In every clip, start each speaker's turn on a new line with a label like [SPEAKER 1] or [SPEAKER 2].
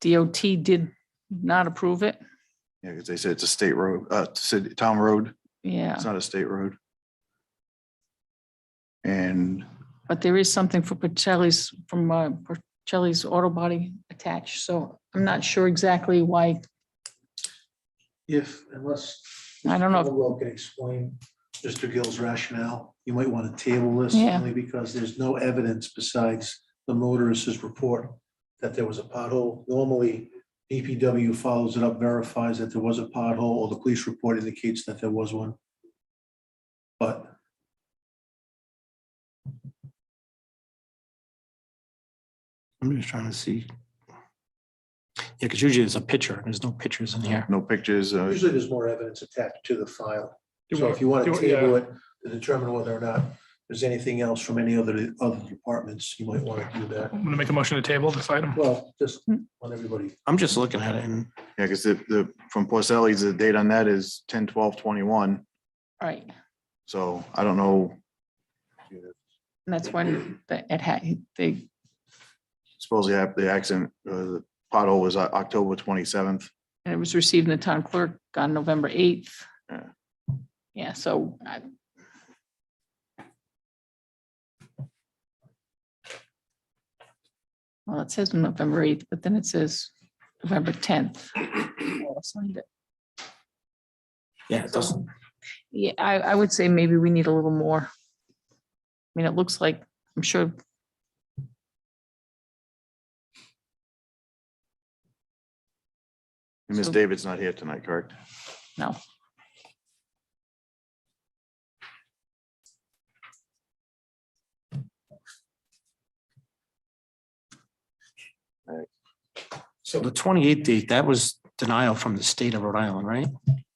[SPEAKER 1] DOT did not approve it.
[SPEAKER 2] Yeah, because they said it's a state road, uh, city, town road.
[SPEAKER 1] Yeah,
[SPEAKER 2] It's not a state road. And
[SPEAKER 1] but there is something for Pacelli's, from uh, Pacelli's auto body attached, so I'm not sure exactly why.
[SPEAKER 3] If, unless.
[SPEAKER 1] I don't know if-
[SPEAKER 3] Mr. Caldwell can explain Mr. Gill's rationale. You might want to table this
[SPEAKER 1] Yeah.
[SPEAKER 3] only because there's no evidence besides the motorist's report that there was a pothole. Normally, DPW follows it up, verifies that there was a pothole, or the police report indicates that there was one. But
[SPEAKER 4] I'm just trying to see. Yeah, because usually there's a picture. There's no pictures in here.
[SPEAKER 2] no pictures, uh,
[SPEAKER 3] usually there's more evidence attached to the file.
[SPEAKER 5] Do
[SPEAKER 3] So
[SPEAKER 5] we-
[SPEAKER 3] if you want
[SPEAKER 5] do
[SPEAKER 3] to
[SPEAKER 5] we- uh, yeah.
[SPEAKER 3] table it to determine whether or not there's anything else from any other, other departments, you might want to do that.
[SPEAKER 5] I'm gonna make a motion to table this item.
[SPEAKER 3] Well, just want everybody
[SPEAKER 4] I'm just looking at it and
[SPEAKER 2] yeah, because the, the, from Porcelli's, the date on that is ten, twelve, twenty-one.
[SPEAKER 1] Right,
[SPEAKER 2] So I don't know,
[SPEAKER 1] and that's when the, it had, they,
[SPEAKER 2] supposedly hap- the accident, uh, the pothole was O- October twenty-seventh.
[SPEAKER 1] and it was received in the town clerk on November eighth.
[SPEAKER 2] Yeah.
[SPEAKER 1] Yeah, so I, well, it says November eighth, but then it says November tenth.
[SPEAKER 4] yeah, it doesn't,
[SPEAKER 1] Yeah, I, I would say maybe we need a little more. I mean, it looks like, I'm sure.
[SPEAKER 2] And Ms.
[SPEAKER 1] So-
[SPEAKER 2] David's not here tonight, correct?
[SPEAKER 1] No.
[SPEAKER 4] so the twenty-eighth date, that was denial from the state of Rhode Island, right?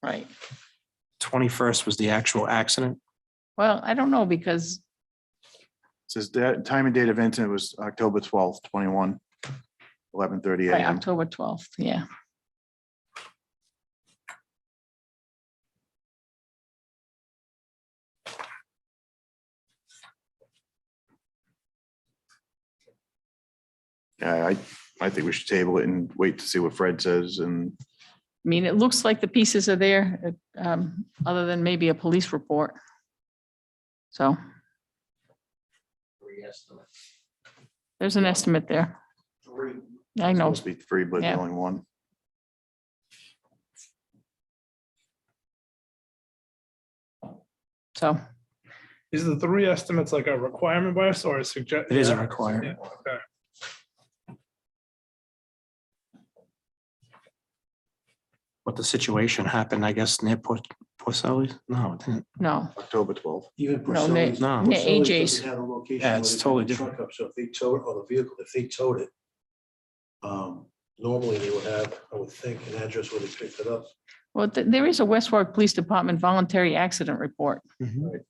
[SPEAKER 1] Right.
[SPEAKER 4] Twenty-first was the actual accident.
[SPEAKER 1] Well, I don't know because,
[SPEAKER 2] Says that time and date of incident was October twelfth, twenty-one, eleven thirty
[SPEAKER 1] right,
[SPEAKER 2] AM.
[SPEAKER 1] October twelfth, yeah.
[SPEAKER 2] Yeah, I, I think we should table it and wait to see what Fred says and
[SPEAKER 1] I mean, it looks like the pieces are there, uh, um, other than maybe a police report. So. There's an estimate there. I know,
[SPEAKER 2] supposed to be three, but
[SPEAKER 1] Yeah.
[SPEAKER 2] only one.
[SPEAKER 1] so,
[SPEAKER 5] Is the three estimates like a requirement by us or a suggestion?
[SPEAKER 4] It is a requirement. What the situation happened, I guess, near Port, Porcelli? No, it didn't.
[SPEAKER 1] no,
[SPEAKER 2] October twelfth.
[SPEAKER 3] Even
[SPEAKER 1] No, they-
[SPEAKER 3] Porcelli's.
[SPEAKER 4] No.
[SPEAKER 3] Porcelli's
[SPEAKER 1] Yeah, AJ's.
[SPEAKER 3] doesn't have a location
[SPEAKER 4] Yeah,
[SPEAKER 3] where
[SPEAKER 4] it's
[SPEAKER 3] they pick
[SPEAKER 4] totally
[SPEAKER 3] the truck up, So if they towed, or the vehicle, if they towed it, um, normally they would have, I would think, an address where they picked it up.
[SPEAKER 1] well, th- there is a West Warwick Police Department voluntary accident report.
[SPEAKER 4] Mhm.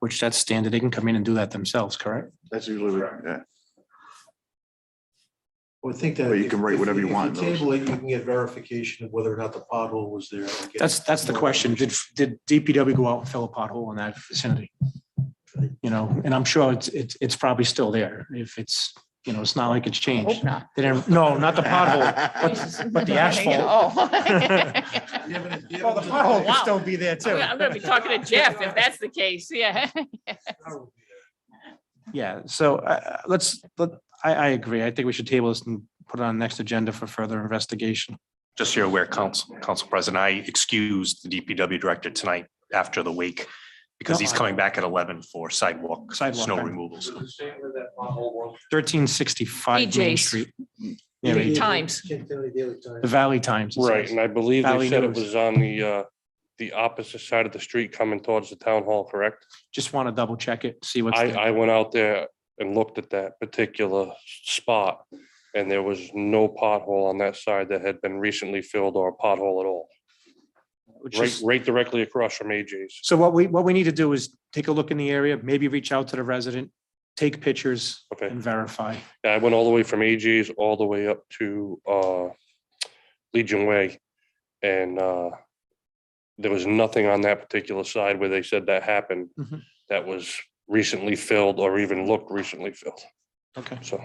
[SPEAKER 4] Which that's standard. They can come in and do that themselves, correct?
[SPEAKER 2] That's usually, what- yeah.
[SPEAKER 3] I would think that.
[SPEAKER 2] But you
[SPEAKER 3] if-
[SPEAKER 2] can write
[SPEAKER 3] if-
[SPEAKER 2] whatever you
[SPEAKER 3] if
[SPEAKER 2] want in those.
[SPEAKER 3] Table it, you can get verification of whether or not the pothole was there. and get-
[SPEAKER 4] That's, that's the question. Did, did DPW go out and fill a pothole in that vicinity? You know, and I'm sure it's, it's, it's probably still there. If it's, you know, it's not like it's changed.
[SPEAKER 1] Hope not.
[SPEAKER 4] They didn't, no, not the pothole. but the
[SPEAKER 1] asphole.
[SPEAKER 3] Do you have any- do you
[SPEAKER 4] Well,
[SPEAKER 3] have
[SPEAKER 4] the
[SPEAKER 3] any-
[SPEAKER 4] pothole
[SPEAKER 1] Oh, Wow.
[SPEAKER 4] could still be there too.
[SPEAKER 1] I'm gonna be talking to Jeff if that's the case, yeah.
[SPEAKER 4] Yeah, so uh, let's, let, I, I agree. I think we should table this and put it on the next agenda for further investigation.
[SPEAKER 6] Just so you're aware, Council, Council President, I excused the DPW director tonight after the wake because he's coming back at eleven for sidewalk,
[SPEAKER 4] Sidewalk,
[SPEAKER 6] snow
[SPEAKER 4] right.
[SPEAKER 6] removals.
[SPEAKER 4] Thirteen sixty-five Main
[SPEAKER 1] BJ's.
[SPEAKER 4] Street. Yeah, we-
[SPEAKER 1] Times.
[SPEAKER 3] Kent County Daily Times.
[SPEAKER 4] The Valley Times. it
[SPEAKER 7] Right,
[SPEAKER 4] says.
[SPEAKER 7] and I believe
[SPEAKER 4] Valley
[SPEAKER 7] they said it
[SPEAKER 4] News.
[SPEAKER 7] was on the, uh, the opposite side of the street coming towards the town hall, correct?
[SPEAKER 4] Just want to double check it, see what's.
[SPEAKER 7] I,
[SPEAKER 4] there.
[SPEAKER 7] I went out there and looked at that particular spot and there was no pothole on that side that had been recently filled or a pothole at all.
[SPEAKER 4] Which
[SPEAKER 7] Right,
[SPEAKER 4] is-
[SPEAKER 7] right directly across from AJ's.
[SPEAKER 4] So what we, what we need to do is take a look in the area, maybe reach out to the resident, take pictures
[SPEAKER 7] Okay.
[SPEAKER 4] and verify.
[SPEAKER 7] Yeah, I went all the way from AJ's all the way up to uh Legion Way. And uh there was nothing on that particular side where they said that happened
[SPEAKER 4] Mhm.
[SPEAKER 7] that was recently filled or even looked recently filled.
[SPEAKER 4] Okay.
[SPEAKER 7] So